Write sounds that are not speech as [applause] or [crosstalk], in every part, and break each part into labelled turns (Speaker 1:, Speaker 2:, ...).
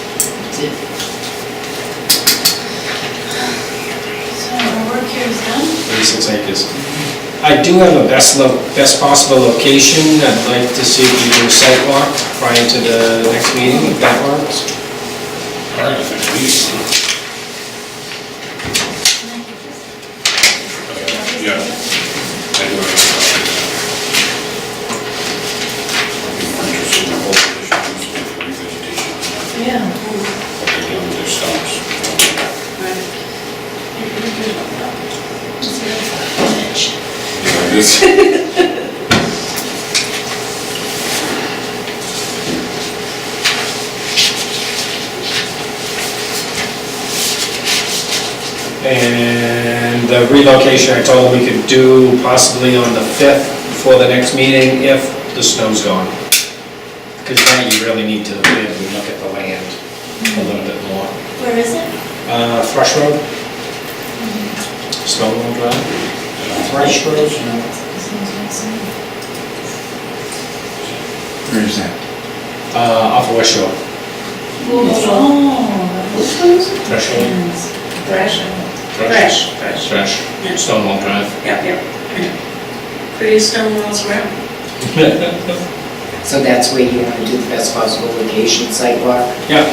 Speaker 1: listed. So our work here is done.
Speaker 2: 36 acres. I do have a best, lo- best possible location, I'd like to see if you do a site walk prior to the next meeting, if that works.
Speaker 3: Prior to next meeting. Yeah. I do have a copy. I'd be more interested in the whole issue, just the revegetation,
Speaker 1: Yeah.
Speaker 3: what they do with their stumps. Yeah, this-
Speaker 2: And the relocation, I told them we could do possibly on the 5th before the next meeting if the snow's gone. Because now you really need to really look at the land a little bit more.
Speaker 1: Where is it?
Speaker 2: Uh, Thrush Road? Stone Road Drive? Thrush Road?
Speaker 4: Where is that?
Speaker 2: Uh, off of West Shore.
Speaker 1: Oh.
Speaker 2: Thrush Road?
Speaker 1: Fresh.
Speaker 2: Fresh. Thrush. Stone Road Drive.
Speaker 1: Yep, yep. Pretty stone walls around.
Speaker 5: So that's where you want to do the best possible location sidewalk
Speaker 2: Yeah.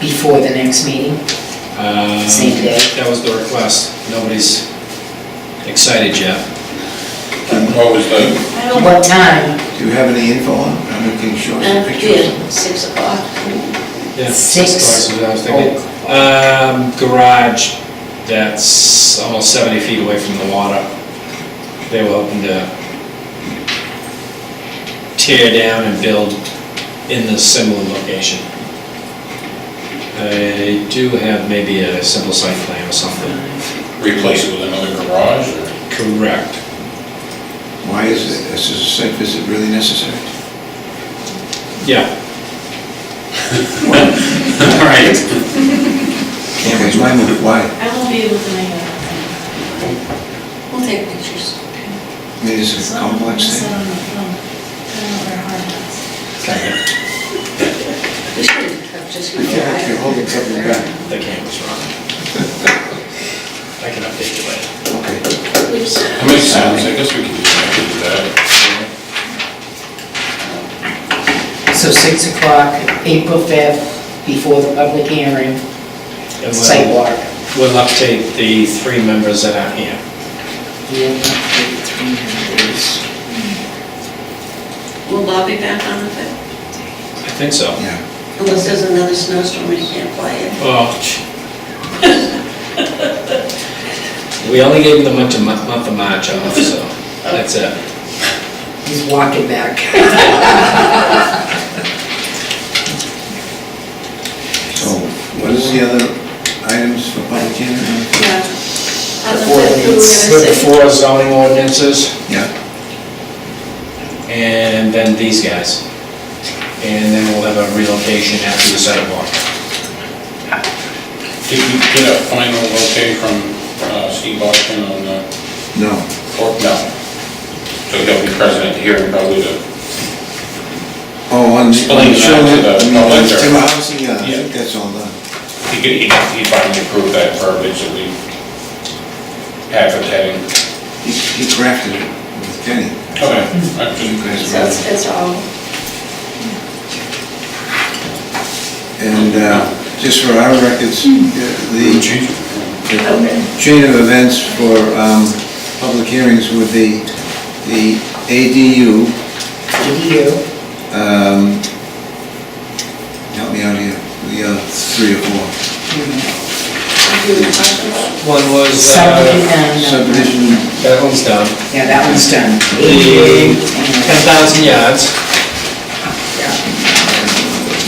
Speaker 5: before the next meeting?
Speaker 2: Um,
Speaker 5: Same day.
Speaker 2: That was the request. Nobody's excited yet.
Speaker 3: What was the,
Speaker 1: I
Speaker 5: What time?
Speaker 4: Do you have any info on, I'm looking short some pictures.
Speaker 6: Uh, Yeah, six o'clock.
Speaker 2: Yeah,
Speaker 5: Six. Oh.
Speaker 2: cars is what I was thinking. Um, garage that's almost seventy feet away from the water. They were hoping to tear down and build in the similar location. I do have maybe a simple site plan or something.
Speaker 3: replace it with another garage or?
Speaker 2: Correct.
Speaker 4: Why is it, is this site visit really necessary?
Speaker 2: Yeah. [laughs] All right.
Speaker 4: Okay, it's my move, why?
Speaker 1: I won't be able to make it.
Speaker 6: We'll take pictures.
Speaker 4: I mean, it's a complex thing.
Speaker 2: Okay,
Speaker 6: We should have just.
Speaker 4: You can't- you're holding something back.
Speaker 2: The camera's wrong. I can update you later.
Speaker 4: Okay.
Speaker 6: Oops.
Speaker 3: That makes sense, I guess we can do that.
Speaker 5: So 6 o'clock, April 5th, before the public hearing,
Speaker 2: And we'll-
Speaker 5: sidewalk.
Speaker 2: We'll update the three members that are here.
Speaker 6: Will Bob be back on the fifth?
Speaker 2: I think so.
Speaker 4: Yeah.
Speaker 6: Unless there's another snowstorm, he can't fly in.
Speaker 2: Oh. [laughs] gee. We only gave them the month of, Ma- month of March off, so that's it.
Speaker 5: He's walking back.
Speaker 4: So what is the other items for public hearing?
Speaker 6: Yeah. On the
Speaker 5: Before
Speaker 6: fifth, who are we gonna
Speaker 5: it's-
Speaker 2: With the
Speaker 6: see?
Speaker 2: four zoning ordinances
Speaker 4: Yeah,
Speaker 2: and then these guys. And then we'll have a relocation after the sidewalk.
Speaker 3: Did we get a final okay from uh, Steve Austin on the,
Speaker 4: no.
Speaker 3: or, no? So he'll be present here probably to
Speaker 4: Oh, on.
Speaker 3: Explain that to the public, or-
Speaker 4: Tim Allison, yeah, I
Speaker 3: Yeah.
Speaker 4: think that's all done.
Speaker 3: He could, he he finally approved that verbiage that we advertising.
Speaker 4: He he crafted it with Kenny.
Speaker 3: Okay.
Speaker 4: You guys
Speaker 6: So
Speaker 4: wrote
Speaker 6: it's,
Speaker 4: it.
Speaker 6: it's all,
Speaker 4: And uh, just for our records, uh, the
Speaker 6: Hmm. okay.
Speaker 4: chain of events for um, public hearings would be the ADU,
Speaker 5: ADU,
Speaker 4: um, help me out here, the uh, three or four,
Speaker 6: Do you talk about?
Speaker 2: One was, uh,
Speaker 5: subdivision, and,
Speaker 4: subdivision,
Speaker 2: that one's done.
Speaker 5: yeah, that one's done.
Speaker 2: The
Speaker 5: And
Speaker 2: 10,000 yards,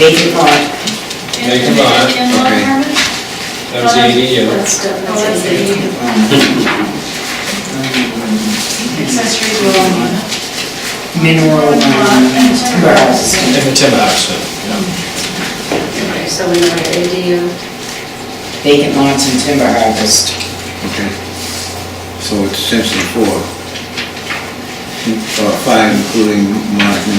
Speaker 5: Vacant lot,
Speaker 2: Thank you, Bob.
Speaker 4: Okay.
Speaker 2: that was the E ADU.
Speaker 6: That's done,
Speaker 1: Oh,
Speaker 6: that's
Speaker 1: that's
Speaker 6: it.
Speaker 1: the ADU.
Speaker 5: Um,
Speaker 1: Accessory
Speaker 5: mineral, um, timber house.
Speaker 2: And the timber house, yeah.
Speaker 6: Okay, so we know the ADU.
Speaker 5: vacant lots and timber harvest.
Speaker 4: okay. So it's essentially four, or five Hmm, including Mark and